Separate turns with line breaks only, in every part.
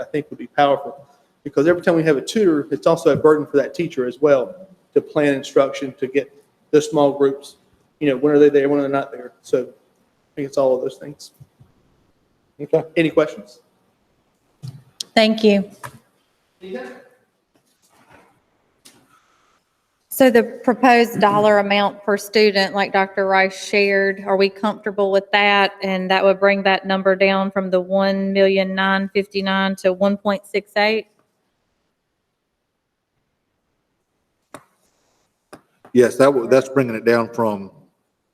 I think would be powerful. Because every time we have a tutor, it's also a burden for that teacher as well to plan instruction, to get the small groups, you know, when are they there, when are they not there? So I think it's all of those things. Okay, any questions?
Thank you. So the proposed dollar amount per student, like Dr. Rice shared, are we comfortable with that? And that would bring that number down from the 1,959 to 1.68?
Yes, that, wa- that's bringing it down from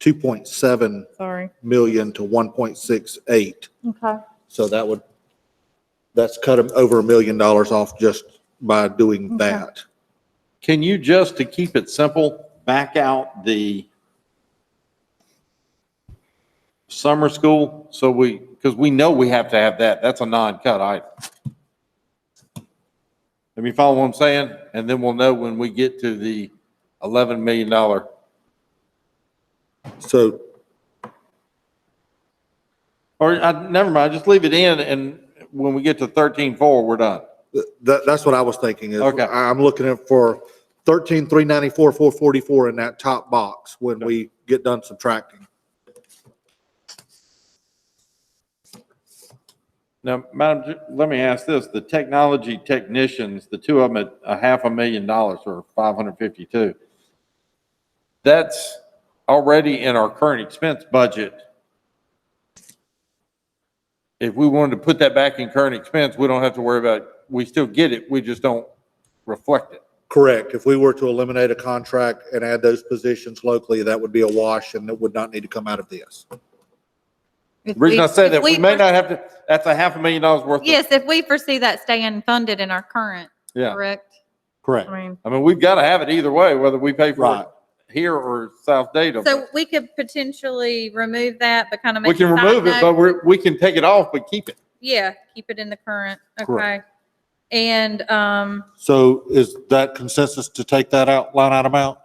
2.7
Sorry.
million to 1.68.
Okay.
So that would, that's cut 'em over a million dollars off just by doing that.
Can you just, to keep it simple, back out the summer school? So we, because we know we have to have that. That's a non-cut item. Let me follow what I'm saying, and then we'll know when we get to the $11 million. Or
So
I, uh, never mind, just leave it in and when we get to 13.4, we're done.
th- that, that's what I was thinking is,
Okay.
I- I'm looking at for 13, 394, 444 in that top box when we get done subtracting.
Now, Madam, Ju- let me ask this, the technology technicians, the two of them at a half a million dollars or 552. That's already in our current expense budget. If we wanted to put that back in current expense, we don't have to worry about, it. we still get it, we just don't reflect it.
Correct. If we were to eliminate a contract and add those positions locally, that would be a wash and it would not need to come out of this.
If
Reason I
we-
say
if
that, we may
foresee-
not have to, that's a half a million dollars worth. of-
Yes, if we foresee that staying funded in our current,
Yeah,
correct?
Correct.
I mean,
I mean, we've got to have it either way, whether we pay for
Right.
it here or South Data. but-
so we could potentially remove that, but kind of make.
We can
a side
remove it,
note.
but we're, we can take it off, but keep it.
Yeah, keep it in the current, okay.
Correct.
And, um,
So is that consensus to take that out, line item out,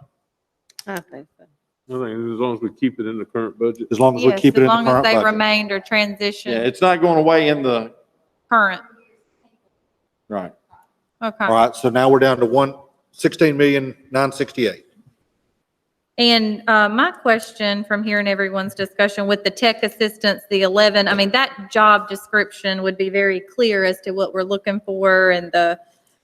I think so.
I think as long as we keep it in the current budget.
as long as we
yes,
keep
as
it in the
long as
current
they
budget?
remained or
Yeah,
transitioned
it's not going away in the,
current,
right.
All
okay.
right, so now we're down to one, sixteen million, nine sixty-eight.
And, uh, my question from hearing everyone's discussion with the tech assistance, the 11, I mean, that job description would be very clear as to what we're looking for and the,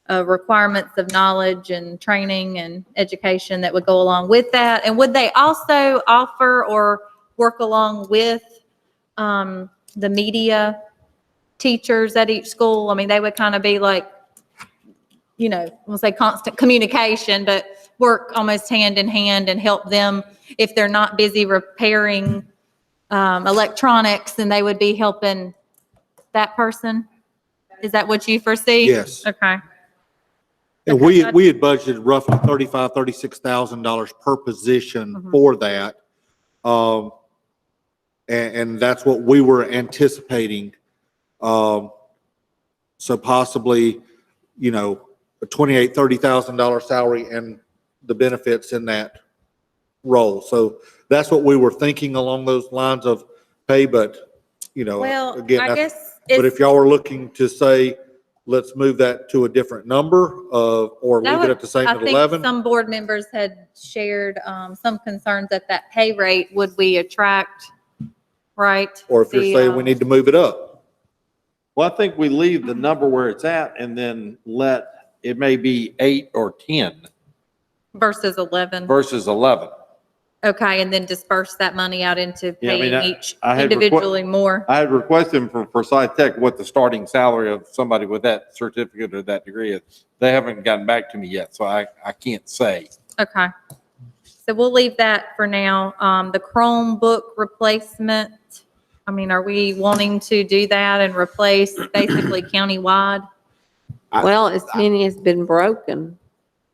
uh, requirements of knowledge and training and education that would go along with that. And would they also offer or work along with, um, the media teachers at each school? I mean, they would kind of be like, you know, we'll say constant communication, but work almost hand in hand and help them if they're not busy repairing um, electronics, then they would be helping that person? Is that what you foresee?
Yes.
Okay.
And we, we had budgeted roughly thirty-five, thirty-six thousand dollars per position
Mhm.
for that. Um, and, and that's what we were anticipating. Um, so possibly, you know, a twenty-eight, thirty thousand dollar salary and the benefits in that role. So that's what we were thinking along those lines of pay, but, you know,
Well,
again,
I
that's-
guess
but if
it's,
y'all are looking to say, let's move that to a different number of, or
That
leave
would-
it at the same
I
at
think
11,
some board members had shared um, some concerns at that pay rate, would we attract, right?
or if you're
the,
saying
um,
we need to move it up.
Well, I think we leave the number where it's at and then let, it may be eight or 10
Versus 11.
versus 11.
Okay, and then disperse that money out into
Yeah, I mean,
paying
I-
each
I had requ-
individually more.
I had requested from Forsyth Tech what the starting salary of somebody with that certificate or that degree is. They haven't gotten back to me yet, so I, I can't say.
Okay. So we'll leave that for now. Um, the Chromebook replacement, I mean, are we wanting to do that and replace basically countywide?
I-
Well, as many has been broken,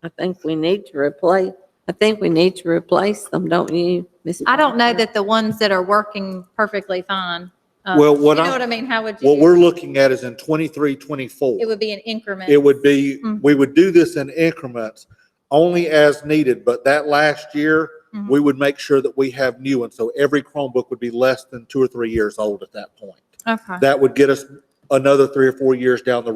I think we need to replace, I think we need to replace them, don't you, Ms.?
I don't know
Parker?
that the ones that are working perfectly fine. uh,
Well, what
You know
I-
what I mean? How would you?
What we're looking at is in 23,
It
24.
would be an increment.
It would be,
Mm.
we would do this in increments only as needed, but that last year,
Mhm.
we would make sure that we have new ones. So every Chromebook would be less than two or three years old at that point.
Okay.
That would get us another three or four years down the